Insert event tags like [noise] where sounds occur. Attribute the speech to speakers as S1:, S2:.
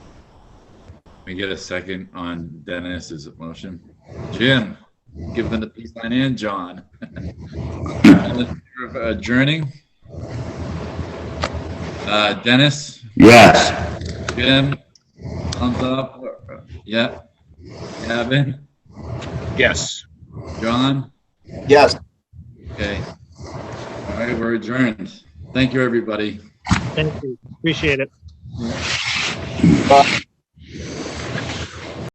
S1: we get a second on Dennis's motion? Jim, give them the peace sign and John. [laughs] All in favor of Adjourning? Uh, Dennis,
S2: Yes.
S1: Jim, thumbs up, yeah. Gavin,
S3: Yes.
S1: John,
S2: Yes.
S1: okay. All right, we're adjourned. Thank you, everybody.
S3: Thank you. Appreciate it.
S2: Bye.